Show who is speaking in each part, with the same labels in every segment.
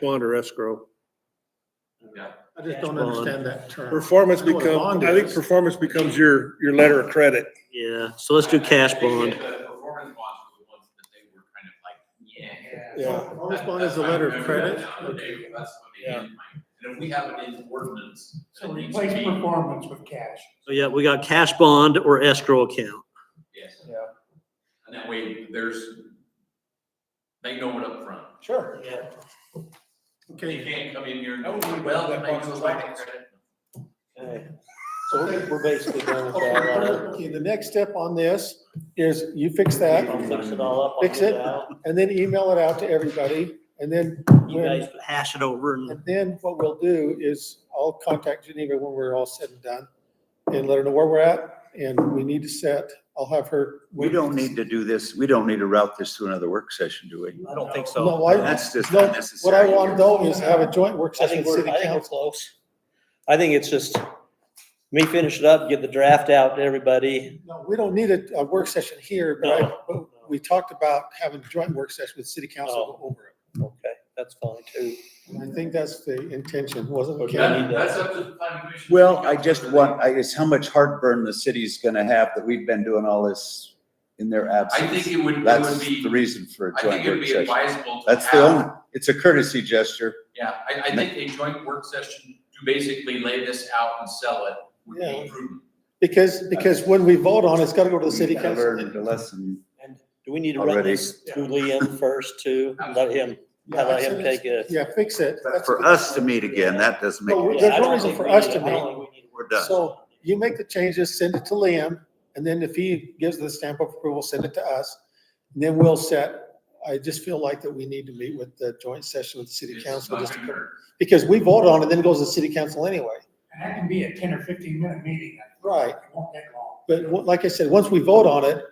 Speaker 1: bond or escrow.
Speaker 2: Yeah.
Speaker 3: I just don't
Speaker 1: Bond.
Speaker 3: understand that term.
Speaker 1: Performance
Speaker 3: I know what a
Speaker 1: becomes,
Speaker 3: bond
Speaker 1: I think
Speaker 3: is.
Speaker 1: performance becomes your, your letter of credit.
Speaker 4: Yeah, so let's do cash bond.
Speaker 2: The performance bonds were the ones that they were kind of like, yeah.
Speaker 1: Yeah.
Speaker 3: Performance bond is a
Speaker 2: That-
Speaker 3: letter
Speaker 2: I
Speaker 3: of
Speaker 2: remember
Speaker 3: credit.
Speaker 2: that now, the day when that's what they
Speaker 1: Yeah.
Speaker 2: had in mind. And if we have it in ordinance. then
Speaker 5: So
Speaker 2: it needs
Speaker 5: replace
Speaker 2: to be-
Speaker 5: performance with cash.
Speaker 4: So yeah, we got cash bond or escrow account.
Speaker 2: Yes.
Speaker 5: Yeah.
Speaker 2: And that way there's, they know it up front.
Speaker 5: Sure.
Speaker 2: They
Speaker 3: Okay,
Speaker 2: can't come in here and,
Speaker 5: I wouldn't
Speaker 2: oh,
Speaker 5: leave
Speaker 2: well, that
Speaker 5: that
Speaker 2: makes
Speaker 5: box
Speaker 2: us
Speaker 5: of
Speaker 2: like
Speaker 5: records.
Speaker 2: credit.
Speaker 6: So we're- we're basically done with
Speaker 5: Okay,
Speaker 6: that.
Speaker 5: well,
Speaker 6: alright?
Speaker 5: okay, the next step on this is you fix that
Speaker 6: I'll fix it all up. I'll
Speaker 5: Fix
Speaker 6: get
Speaker 5: it.
Speaker 6: out.
Speaker 5: and then email it out to everybody. And then,
Speaker 4: You guys hash it over and
Speaker 5: and then what we'll do is I'll contact Geneva when we're all said and done and let her know where we're at. And we need to set, I'll have her.
Speaker 7: We don't need to do this, we don't need to route this to another work session, do we?
Speaker 4: I don't think
Speaker 5: No,
Speaker 4: so.
Speaker 5: I-
Speaker 7: That's just
Speaker 5: no, What I
Speaker 7: unnecessary.
Speaker 5: want though is have a joint work
Speaker 4: I
Speaker 5: session
Speaker 4: think
Speaker 5: with
Speaker 4: we're,
Speaker 5: city
Speaker 4: I think we're
Speaker 5: council.
Speaker 4: close. I think it's just me finish it up, get the draft out to everybody.
Speaker 5: No, we don't need a, a work session here, but I,
Speaker 4: No.
Speaker 5: but we talked about having a joint work session with city council
Speaker 4: Oh.
Speaker 5: to go over it.
Speaker 4: Okay, that's fine too.
Speaker 5: And I think that's the intention, wasn't it?
Speaker 4: Okay.
Speaker 5: Ken?
Speaker 4: need
Speaker 2: That-
Speaker 4: to-
Speaker 2: That's up to the planning commission.
Speaker 7: Well, I just want, I, it's how much heartburn the city's gonna have that we've been doing all this in their
Speaker 2: I think
Speaker 7: absence.
Speaker 2: it would, it would
Speaker 7: That's
Speaker 2: be.
Speaker 7: the reason for a
Speaker 2: I think
Speaker 7: joint
Speaker 2: it'd
Speaker 7: work
Speaker 2: be
Speaker 7: session.
Speaker 2: advisable to
Speaker 7: That's the
Speaker 2: have-
Speaker 7: only, it's a courtesy gesture.
Speaker 2: Yeah, I, I think a joint work session to basically lay this out and sell it would be
Speaker 5: Yeah.
Speaker 2: prudent.
Speaker 5: Because, because when we vote on it, it's gotta go to the
Speaker 7: We
Speaker 5: city
Speaker 7: have
Speaker 5: council.
Speaker 7: Learned a lesson.
Speaker 4: And do we need to run
Speaker 7: Already.
Speaker 4: this to Liam first too? Let him,
Speaker 5: Yeah,
Speaker 4: let
Speaker 5: so
Speaker 4: him
Speaker 5: it's-
Speaker 4: take a.
Speaker 5: Yeah, fix it.
Speaker 7: But
Speaker 5: That's
Speaker 7: for
Speaker 5: good.
Speaker 7: us to meet again, that doesn't make,
Speaker 5: No,
Speaker 7: any
Speaker 5: There's
Speaker 4: Yeah, I
Speaker 7: sense.
Speaker 5: no
Speaker 4: don't
Speaker 5: reason
Speaker 4: think
Speaker 5: for
Speaker 4: we
Speaker 5: us
Speaker 4: need-
Speaker 5: to
Speaker 4: I don't
Speaker 5: meet.
Speaker 4: think we need
Speaker 7: we're done.
Speaker 5: So you make the changes, send it to Liam, and then if he gives the stamp of approval, send it to us. And Then we'll set, I just feel like that we need to meet with the joint session with the city
Speaker 2: It's
Speaker 5: council.
Speaker 2: not
Speaker 5: just to-
Speaker 2: gonna hurt.
Speaker 5: Because we vote on it, then it goes to the city council anyway.
Speaker 3: and that can be a ten or fifteen minute meeting.
Speaker 5: Right.
Speaker 3: It won't take long.
Speaker 5: But what- like I said, once we vote on it,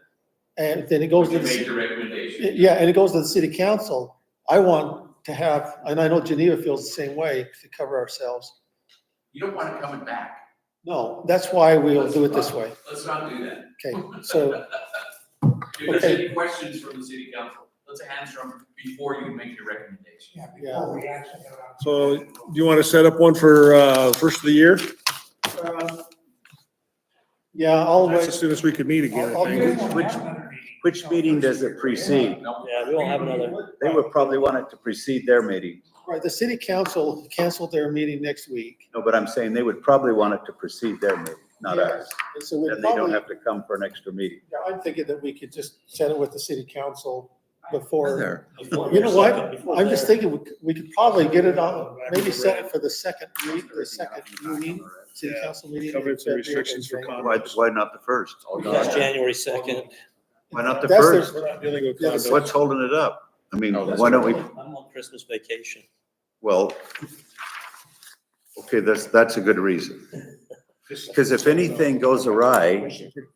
Speaker 5: and then it goes
Speaker 2: Would you
Speaker 5: to the.
Speaker 2: make
Speaker 5: ci-
Speaker 2: the recommendation?
Speaker 5: Yeah, and it goes to the city council. I want to have, and I know Geneva feels the same way, to cover ourselves.
Speaker 2: You don't want it coming back.
Speaker 5: No, that's why we'll do it this way.
Speaker 2: Let's not do that.
Speaker 5: Okay, so,
Speaker 2: If there's
Speaker 5: Okay.
Speaker 2: any questions from the city council, let's answer them before you make your recommendation.
Speaker 3: Yeah, before we actually get around.
Speaker 1: So do you want to set up one for, uh, first of the year?
Speaker 5: um, yeah, I'll
Speaker 1: That's
Speaker 5: wait.
Speaker 1: as soon as we could meet again, I
Speaker 5: I'll-
Speaker 1: think.
Speaker 7: Which- which meeting does it precede?
Speaker 2: No.
Speaker 4: Yeah, we won't have another.
Speaker 7: They would probably want it to precede their meeting.
Speaker 5: Right, the city council canceled their meeting next week.
Speaker 7: No, but I'm saying they would probably want it to precede their meeting, not
Speaker 5: Yes.
Speaker 7: ours.
Speaker 5: And so we
Speaker 7: And they don't
Speaker 5: probably,
Speaker 7: have to come for an extra meeting.
Speaker 5: I'm thinking that we could just set it with the city council before.
Speaker 7: There.
Speaker 4: to.
Speaker 5: You know what?
Speaker 4: Before
Speaker 5: I'm just
Speaker 4: there.
Speaker 5: thinking, we could- we could probably get it on, maybe set it for the second week, the second meeting, city
Speaker 1: Yeah.
Speaker 5: council meeting. in
Speaker 1: Covenants and
Speaker 5: February,
Speaker 1: restrictions for
Speaker 5: I think.
Speaker 7: Why,
Speaker 1: condos.
Speaker 7: why not the first?
Speaker 4: That's January second.
Speaker 7: Why not the
Speaker 5: That's their-
Speaker 7: first?
Speaker 1: We're not dealing with
Speaker 5: Yeah,
Speaker 1: condos.
Speaker 7: What's holding it up? I mean,
Speaker 2: No, that's
Speaker 7: why don't we,
Speaker 4: I'm on Christmas vacation.
Speaker 7: well, okay, that's, that's a good reason. Because if anything goes awry,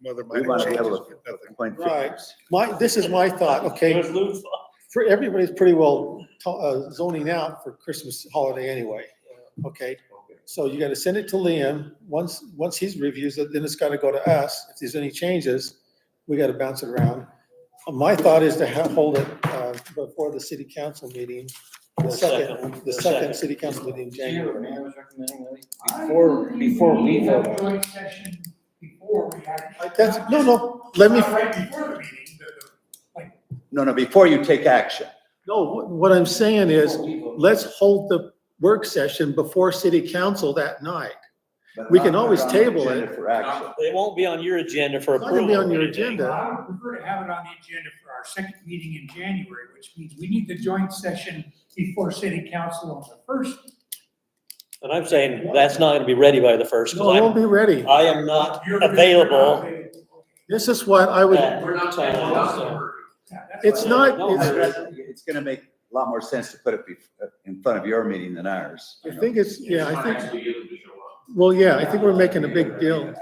Speaker 1: Mother
Speaker 7: we
Speaker 1: might
Speaker 7: want to be
Speaker 1: have
Speaker 7: able
Speaker 1: changed.
Speaker 7: to point
Speaker 5: Right.
Speaker 7: figures.
Speaker 5: My, this is my thought, okay?
Speaker 4: There's Lou's-
Speaker 5: For, everybody's pretty well to- uh, zoning out for Christmas holiday anyway, uh, okay? So you gotta send it to Liam, once, once he's reviews it, then it's gotta go to us, if there's any changes, we gotta bounce it around. Uh, My thought is to ha hold it, uh, before the city council meeting, the
Speaker 4: The
Speaker 5: second, the
Speaker 4: the
Speaker 5: second
Speaker 4: second.
Speaker 5: city council meeting in January.
Speaker 3: Before, before we vote. Joint session before we actually.
Speaker 5: That's, no, no, let me,
Speaker 3: Not Right before the meeting, but the-
Speaker 7: No, no, before you take action.
Speaker 5: no, what- what I'm saying is, let's hold the work session before city council that night.
Speaker 7: but
Speaker 5: We can
Speaker 7: not
Speaker 5: always
Speaker 7: on the
Speaker 5: table
Speaker 7: agenda
Speaker 5: it.
Speaker 7: For action.
Speaker 4: It won't be on your agenda for
Speaker 5: It's not gonna be
Speaker 4: approval.
Speaker 5: on
Speaker 4: or
Speaker 5: your
Speaker 4: anything.
Speaker 5: agenda.
Speaker 3: I would prefer to have it on the agenda for our second meeting in January, which means we need the joint session before city council on the first.
Speaker 4: And I'm saying that's not gonna be ready by the first,
Speaker 5: No, it won't
Speaker 4: because
Speaker 5: be ready.
Speaker 4: I'm, I am not
Speaker 3: You're gonna-
Speaker 4: available.
Speaker 5: This is what I would,
Speaker 4: Yeah.
Speaker 2: We're not, we're not in a hurry.
Speaker 3: Yeah, that's
Speaker 5: It's
Speaker 3: what-
Speaker 5: not-
Speaker 4: No,
Speaker 5: it's-
Speaker 4: I-
Speaker 7: It's gonna make a lot more sense to put it be- in front of your meeting than ours.
Speaker 5: I think it's, yeah,
Speaker 2: Just
Speaker 5: I
Speaker 2: wanna
Speaker 5: think,
Speaker 2: actually be able to show up.
Speaker 5: well, yeah, I think we're making a big deal.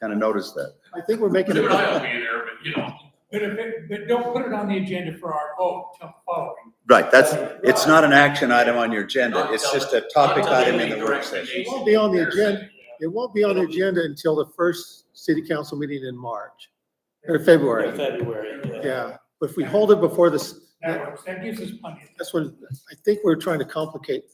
Speaker 7: Kind of noticed that.
Speaker 5: I think we're making a
Speaker 2: Jim and I will
Speaker 5: big,
Speaker 2: be there, but you know.
Speaker 3: But if it, but don't put it on the agenda for our vote till the following.
Speaker 7: Right, that's, it's not an action item on your agenda,
Speaker 2: Not
Speaker 7: it's
Speaker 2: done.
Speaker 7: just a topic
Speaker 2: Not
Speaker 7: item in
Speaker 2: making
Speaker 7: the work session.
Speaker 2: recommendations.
Speaker 5: It won't be on the
Speaker 2: There's-
Speaker 5: agenda. it won't be on the agenda until the first city council meeting in March, or February.
Speaker 4: February.
Speaker 5: Yeah, but if we hold it before this,
Speaker 3: That works, that gives us plenty of time.
Speaker 5: That's what, I think we're trying to complicate